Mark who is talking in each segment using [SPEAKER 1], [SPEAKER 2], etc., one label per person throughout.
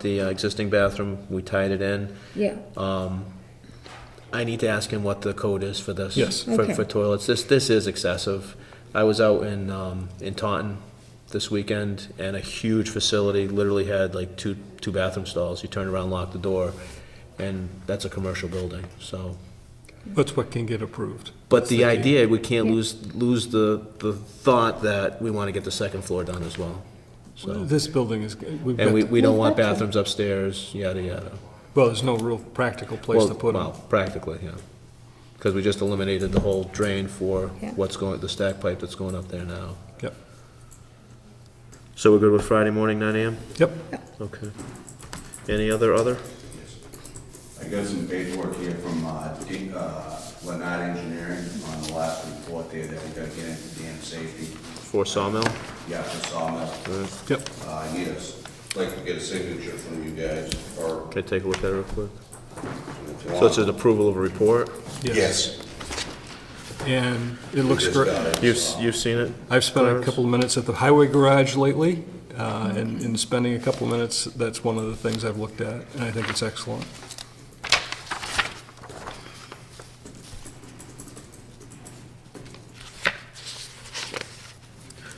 [SPEAKER 1] the uh, existing bathroom, we tied it in. Um,
[SPEAKER 2] Yeah,
[SPEAKER 1] I need to ask him what the code is for this.
[SPEAKER 3] Yes.
[SPEAKER 1] For,
[SPEAKER 2] Okay.
[SPEAKER 1] for toilets. This, this is excessive. I was out in, um, in Taunton this weekend and a huge facility literally had like two, two bathroom stalls. You turn around, lock the door, and that's a commercial building, so.
[SPEAKER 3] That's what can get approved.
[SPEAKER 1] But the
[SPEAKER 3] That's
[SPEAKER 1] idea, we can't
[SPEAKER 2] Yeah.
[SPEAKER 1] lose, lose the, the thought that we want to get the second floor done as well. So,
[SPEAKER 3] This building is, we've
[SPEAKER 1] and we,
[SPEAKER 3] got,
[SPEAKER 1] we don't want
[SPEAKER 2] We've got to.
[SPEAKER 1] bathrooms upstairs, yada, yada.
[SPEAKER 3] well, there's no real practical place
[SPEAKER 1] Well,
[SPEAKER 3] to put them.
[SPEAKER 1] Well, practically, yeah. Because we just eliminated the whole drain for
[SPEAKER 2] Yeah.
[SPEAKER 1] what's going, the stack pipe that's going up there now.
[SPEAKER 3] Yep,
[SPEAKER 1] So we're good with Friday morning, nine AM?
[SPEAKER 3] yep.
[SPEAKER 1] Okay. Any other, other?
[SPEAKER 4] I got some paperwork here from uh, D- uh, Lenard Engineering on the last report there that we gotta get into dam safety.
[SPEAKER 1] For Sawmill?
[SPEAKER 4] Yeah, for sawmill.
[SPEAKER 3] Yep.
[SPEAKER 4] Uh, I need us, like to get a signature from you guys, or
[SPEAKER 1] Can I take a look at it real quick?
[SPEAKER 4] if you
[SPEAKER 1] So it's an
[SPEAKER 4] want.
[SPEAKER 1] approval of a report?
[SPEAKER 4] Yes.
[SPEAKER 3] And it looks
[SPEAKER 4] Just
[SPEAKER 3] great.
[SPEAKER 4] got it, uh,
[SPEAKER 1] You've,
[SPEAKER 4] so-
[SPEAKER 1] you've seen it?
[SPEAKER 3] I've spent a
[SPEAKER 1] Clarence?
[SPEAKER 3] couple of minutes at the highway garage lately, uh,
[SPEAKER 2] Mm-hmm.
[SPEAKER 3] and in spending a couple of minutes, that's one of the things I've looked at, and I think it's excellent.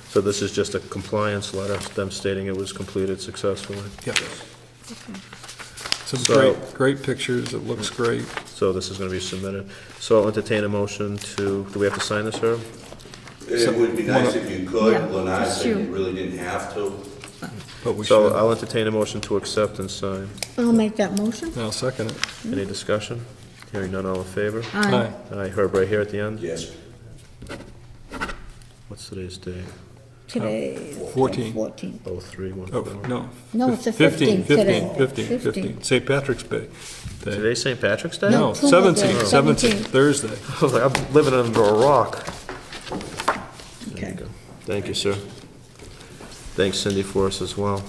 [SPEAKER 1] So this is just a compliance letter, them stating it was completed successfully.
[SPEAKER 3] Yep. Some
[SPEAKER 1] So-
[SPEAKER 3] great, great pictures, it looks great.
[SPEAKER 1] So this is gonna be submitted. So I'll entertain a motion to, do we have to sign this, Herb?
[SPEAKER 4] It would be nice if you
[SPEAKER 2] Yeah,
[SPEAKER 4] could, Lenard
[SPEAKER 2] just
[SPEAKER 4] said you
[SPEAKER 2] you.
[SPEAKER 4] really didn't have to.
[SPEAKER 3] But we
[SPEAKER 1] So uh,
[SPEAKER 3] should,
[SPEAKER 1] I'll entertain a motion to accept and sign.
[SPEAKER 2] I'll make that motion.
[SPEAKER 3] now second it.
[SPEAKER 1] Any discussion? Hearing none, all in favor?
[SPEAKER 2] Aye.
[SPEAKER 3] Aye.
[SPEAKER 1] Aye, Herb, right here at the end?
[SPEAKER 4] Yes.
[SPEAKER 1] What's today's date?
[SPEAKER 2] Today. is
[SPEAKER 3] Fourteen.
[SPEAKER 2] Fourteen.
[SPEAKER 1] Oh, three, one,
[SPEAKER 3] Oh,
[SPEAKER 1] four.
[SPEAKER 3] no.
[SPEAKER 2] No, it's the
[SPEAKER 3] 15,
[SPEAKER 2] 15th today.
[SPEAKER 3] 15, 15,
[SPEAKER 2] 15.
[SPEAKER 3] 15. St. Patrick's Day. Day.
[SPEAKER 1] Today's St. Patrick's Day?
[SPEAKER 3] No,
[SPEAKER 2] Tuesday.
[SPEAKER 3] 17,
[SPEAKER 2] Oh.
[SPEAKER 3] 17,
[SPEAKER 2] 17.
[SPEAKER 3] Thursday.
[SPEAKER 1] I was like, I'm living under a rock.
[SPEAKER 2] Okay.
[SPEAKER 1] Thank you, sir. Thanks Cindy for us as well.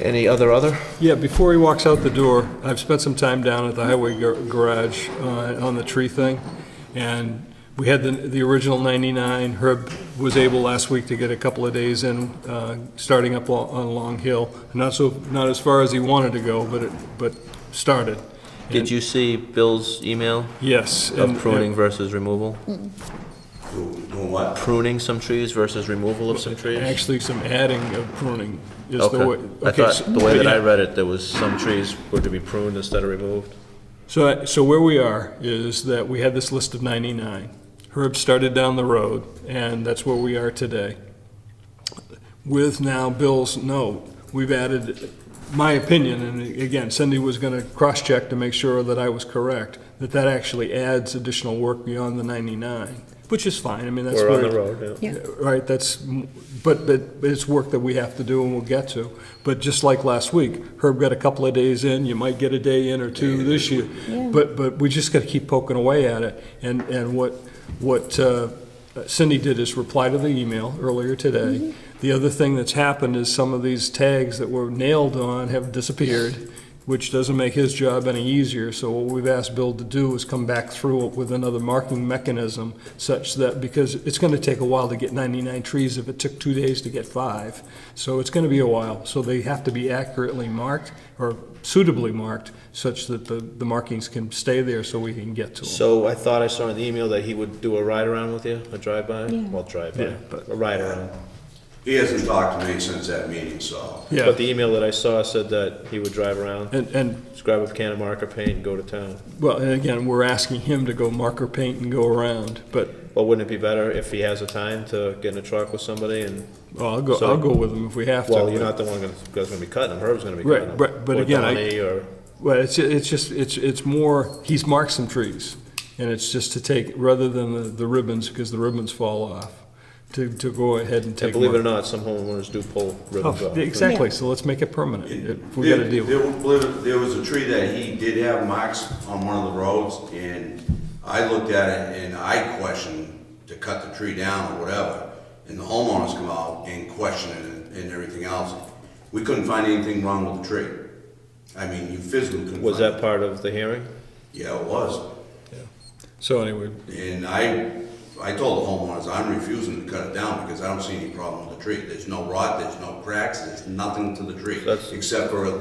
[SPEAKER 1] Any other other?
[SPEAKER 3] Yeah, before he walks out the door, I've spent some time down at the highway gar- garage uh, on the tree thing, and we had the, the original 99. Herb was able last week to get a couple of days in, uh, starting up lo- on Long Hill. Not so, not as far as he wanted to go, but it, but started.
[SPEAKER 1] Did you see Bill's email
[SPEAKER 3] Yes. and-
[SPEAKER 1] of pruning versus removal?
[SPEAKER 4] Doing doing what?
[SPEAKER 1] Pruning some trees versus removal of some trees?
[SPEAKER 3] Actually, some adding of pruning is the way.
[SPEAKER 1] Okay. I
[SPEAKER 3] so-
[SPEAKER 1] thought, the way that I
[SPEAKER 3] yeah.
[SPEAKER 1] read it, there was some trees were to be pruned instead of removed.
[SPEAKER 3] So, so where we are is that we had this list of 99. Herb started down the road, and that's where we are today. With now Bill's note, we've added, my opinion, and again, Cindy was going to cross-check to make sure that I was correct, that that actually adds additional work beyond the 99, which is fine, I mean, that's
[SPEAKER 1] We're
[SPEAKER 3] where.
[SPEAKER 1] on the road, yeah.
[SPEAKER 2] Yeah.
[SPEAKER 3] Right, that's, but, but it's work that we have to do and we'll get to. But just like last week, Herb got a couple of days in, you might get a day in or two this year.
[SPEAKER 2] Yeah.
[SPEAKER 3] But, but we just gotta keep poking away at it. And, and what, what uh, Cindy did is reply to the email earlier
[SPEAKER 2] Mm-hmm.
[SPEAKER 3] today. The other thing that's happened is some of these tags that were nailed on have disappeared, which doesn't make his job any easier. So what we've asked Bill to do is come back through it with another marking mechanism such that, because it's gonna take a while to get 99 trees if it took two days to get five. So it's gonna be a while. So they have to be accurately marked or suitably marked such that the, the markings can stay there so we can get to them.
[SPEAKER 1] So I thought I saw in the email that he would do a ride around with you, a drive-by?
[SPEAKER 2] Yeah.
[SPEAKER 1] Well, drive-by,
[SPEAKER 3] Yeah, but-
[SPEAKER 1] a ride around.
[SPEAKER 4] uh, He hasn't talked to me since that meeting, so.
[SPEAKER 1] But the email that I saw said that he would drive around,
[SPEAKER 3] And, and,
[SPEAKER 1] just grab a can of marker paint and go to town.
[SPEAKER 3] well, and again, we're asking him to go marker paint and go around, but
[SPEAKER 1] Well, wouldn't it be better if he has the time to get in a truck with somebody and,
[SPEAKER 3] well, I'll go, I'll go with him if we have to.
[SPEAKER 1] well, you're not the one gonna- that's gonna be cutting them, Herb's gonna be cutting them.
[SPEAKER 3] Right, right, but again, I-
[SPEAKER 1] Or Donnie, or,
[SPEAKER 3] Well, it's, it's just, it's, it's more, he's marked some trees, and it's just to take, rather than the, the ribbons, because the ribbons fall off, to, to go ahead and
[SPEAKER 1] and
[SPEAKER 3] take.
[SPEAKER 1] believe it or uh, not, some homeowners do pull ribbons
[SPEAKER 3] Oh,
[SPEAKER 1] off.
[SPEAKER 3] Exactly, so let's make it permanent, if we gotta deal with it.
[SPEAKER 4] There was, there was a tree that he did have marks on one of the roads, and I looked at it and I questioned to cut the tree down or whatever, and the homeowners come out and question it and everything else. We couldn't find anything wrong with the tree. I mean, you physically couldn't find.
[SPEAKER 1] Was that part of the hearing?
[SPEAKER 4] Yeah, it was.
[SPEAKER 3] So anyway,
[SPEAKER 4] And I, I told the homeowners, I'm refusing to cut it down because I don't see any problem with the tree. There's no rot, there's no cracks, there's nothing to the tree,
[SPEAKER 1] That's-
[SPEAKER 4] except for a